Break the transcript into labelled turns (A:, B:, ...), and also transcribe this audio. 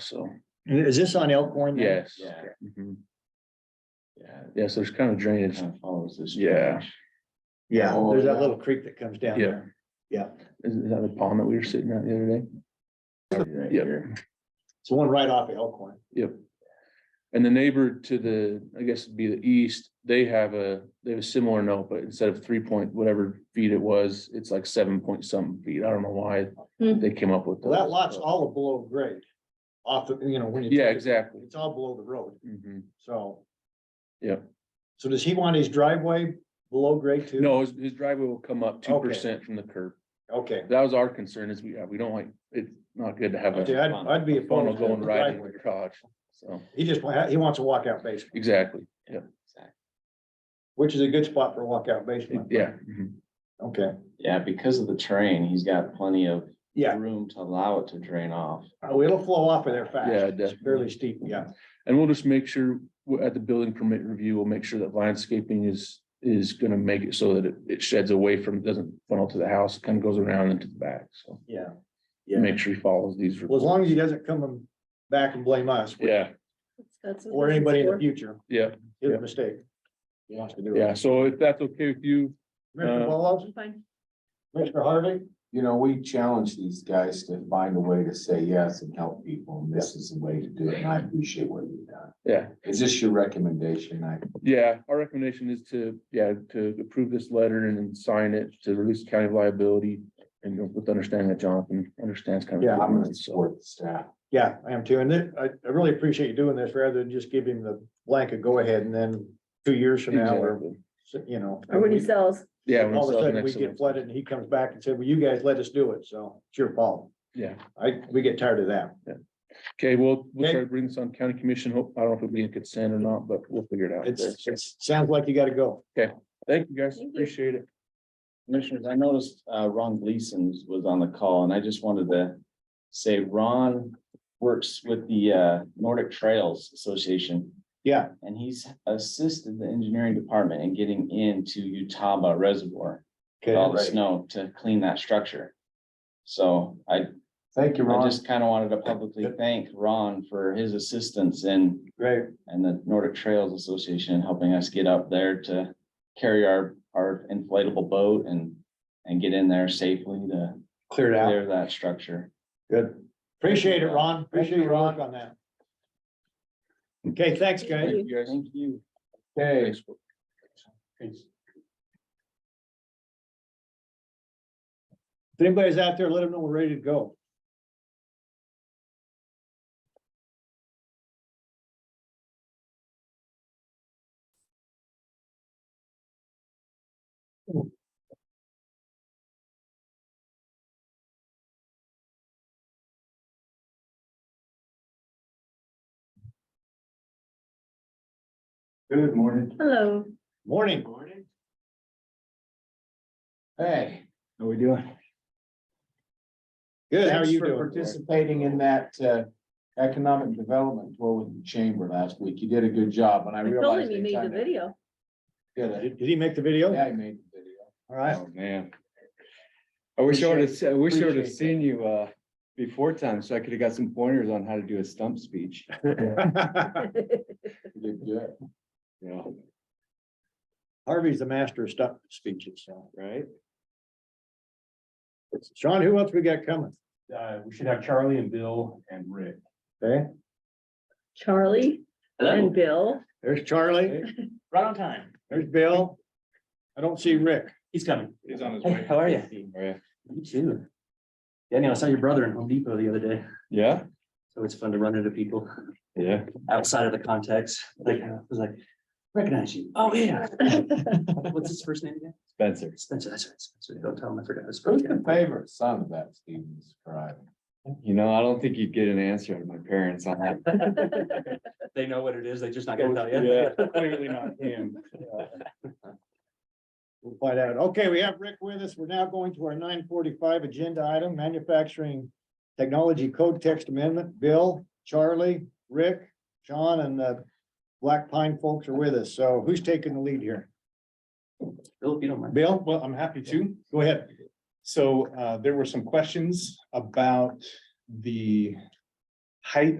A: so,
B: Is this on Elkhorn? then?
A: yes.
C: Yeah.
A: Mhm. Yeah, yes, there's kind of drainage,
C: Kind of follows this.
A: Yeah.
B: Yeah,
C: Oh,
B: there's that
C: yeah.
B: little creek that comes down
A: Yeah.
B: there.
A: is is that the pond that we were sitting at the other day?
C: Right
A: Yep.
C: here.
B: It's the one right off of Elkhorn.
A: Yep. And the neighbor to the, I guess it'd be the east, they have a, they have a similar note, but instead of three point whatever feet it was, it's like seven point something feet. I don't know why
D: Hmm.
A: they came up with.
B: Well, that
A: those,
B: lot's
A: but-
B: all below grade. Off the, you know, when you.
A: Yeah,
B: take it,
A: exactly.
B: It's all below the road,
A: Mhm.
B: so.
A: Yep.
B: So does he want his driveway below grade too?
A: No, his, his driveway will come up two
B: Okay.
A: percent from the curb.
B: Okay.
A: That was our concern is we, we don't like, it's not good to have
B: Okay,
A: a
B: I'd, I'd be.
A: funnel
B: opposed to
A: going
B: the
A: right into
B: driveway.
A: the garage. So,
B: He just, wa- he wants a walkout basement,
A: exactly. Yeah,
C: Exactly.
B: which is a good spot for a walkout basement.
A: yeah. mhm.
B: Okay,
C: Yeah, because of the terrain, he's got plenty of
B: yeah,
C: room to allow it to drain off.
B: uh, it'll flow off of there fast.
A: Yeah,
B: It's fairly steep, yeah.
A: And we'll just make sure, w- at the building permit review, we'll make sure that landscaping is, is gonna make it so that it- it sheds away from, doesn't funnel to the house, kind of goes around into the back, so.
B: Yeah.
A: Make sure he follows these.
B: Well, as long as he doesn't come and back and blame us. which-
A: Yeah,
D: That's what
B: Or
D: this is
B: anybody in the
D: for.
B: future,
A: yeah,
B: his mistake. He wants to do it.
A: yeah, so if that's okay with you,
B: Commissioner
A: Uh,
B: Wallace,
D: Fine.
B: Commissioner Harvey,
E: you know, we challenge these guys to find a way to say yes and help people, and this is the way to do it, and I appreciate what you've done.
A: yeah,
E: Is this your recommendation? I,
A: yeah, our recommendation is to, yeah, to approve this letter and then sign it to release county liability. And you know, with understanding that Jonathan understands kind of.
B: Yeah,
E: I'm gonna
A: So,
E: support the staff.
B: yeah, I am too, and then I, I really appreciate you doing this rather than just give him the blanket go ahead and then two years from now, or,
A: exactly.
B: you know.
D: Or when he sells,
A: Yeah. when
B: All of
A: it's
B: a
A: up
B: sudden, we
A: next to
B: get
A: them.
B: flooded and he comes back and said, well, you guys let us do it, so it's your fault.
A: Yeah.
B: I, we get tired of that.
A: Okay, well, we'll
B: Okay.
A: try to bring this on county commission. Hope, I don't know if it'll be in consent or not, but we'll figure it out. there.
B: It's, it's, sounds like you gotta go.
A: Thank you guys.
D: Thank you.
A: Appreciate it.
C: Commissioners, I noticed uh, Ron Gleason was on the call and I just wanted to say Ron works with the uh, Nordic Trails Association
B: Yeah,
C: and he's assisted the engineering department in getting into Utah Reservoir, with all
B: okay,
C: the snow to clean that structure. So I
E: Thank you,
C: I
E: Ron.
C: just kind of wanted to publicly thank Ron for his assistance in,
B: great,
C: and the Nordic Trails Association in helping us get up there to carry our, our inflatable boat and, and get in there safely to
B: cleared out,
C: clear that structure.
B: good. Appreciate it, Ron, appreciate your work on that. Okay, thanks, guys.
A: Thank you guys.
C: Thank you.
E: Okay,
A: Thanks.
B: If anybody's out there, let them know we're ready to go.
E: good morning.
D: hello.
B: Morning.
E: Hey, how we doing?
B: Good, how are
E: Thanks
B: you
E: for
B: doing?
E: Participating in that uh, economic development tour with the chamber last week. You did a good job, and I
D: I told
E: realized.
D: him you
E: they
D: made the
E: kinda
D: video.
E: did it.
B: Did did he make the video?
E: Yeah, I made the video.
B: All right.
F: Oh, man. I wish I would have, I wish I would have
E: appreciate
F: seen you, uh, before time, so I could have got some pointers on how to do a stump speech,
E: You did good.
F: you know,
B: Harvey's the master of stuff speeches, so.
F: right?
B: Sean, who else we got coming?
G: uh, we should have Charlie and Bill and Rick.
B: Okay,
D: Charlie and Bill.
B: there's Charlie,
G: Right on time.
B: there's Bill. I don't see Rick.
G: He's coming.
F: He's on his
G: Hey, how are you?
F: How are ya?
G: You too. Daniel, I saw your brother in Home Depot the other day,
F: Yeah,
G: so it's fun to run into people
F: yeah.
G: outside of the context. Like, I was like, recognize you. Oh, yeah. What's his first name again?
F: Spencer.
G: Spencer, that's right. Spencer. Don't tell him I forgot. his
E: Who's
G: first
E: the
G: name.
E: favorite son of that Stevens tribe?
F: You know, I don't think you'd get an answer out of my parents on that.
G: They know what it is. They just not gonna tell you.
F: Yeah, Clearly not him.
B: We'll find out. Okay, we have Rick with us. We're now going to our nine forty-five agenda item, manufacturing technology code text amendment. Bill, Charlie, Rick, Sean, and the Black Pine folks are with us. So who's taking the lead here?
G: Bill, if you don't mind.
H: Bill, well, I'm happy to.
B: Go ahead.
H: So uh, there were some questions about the height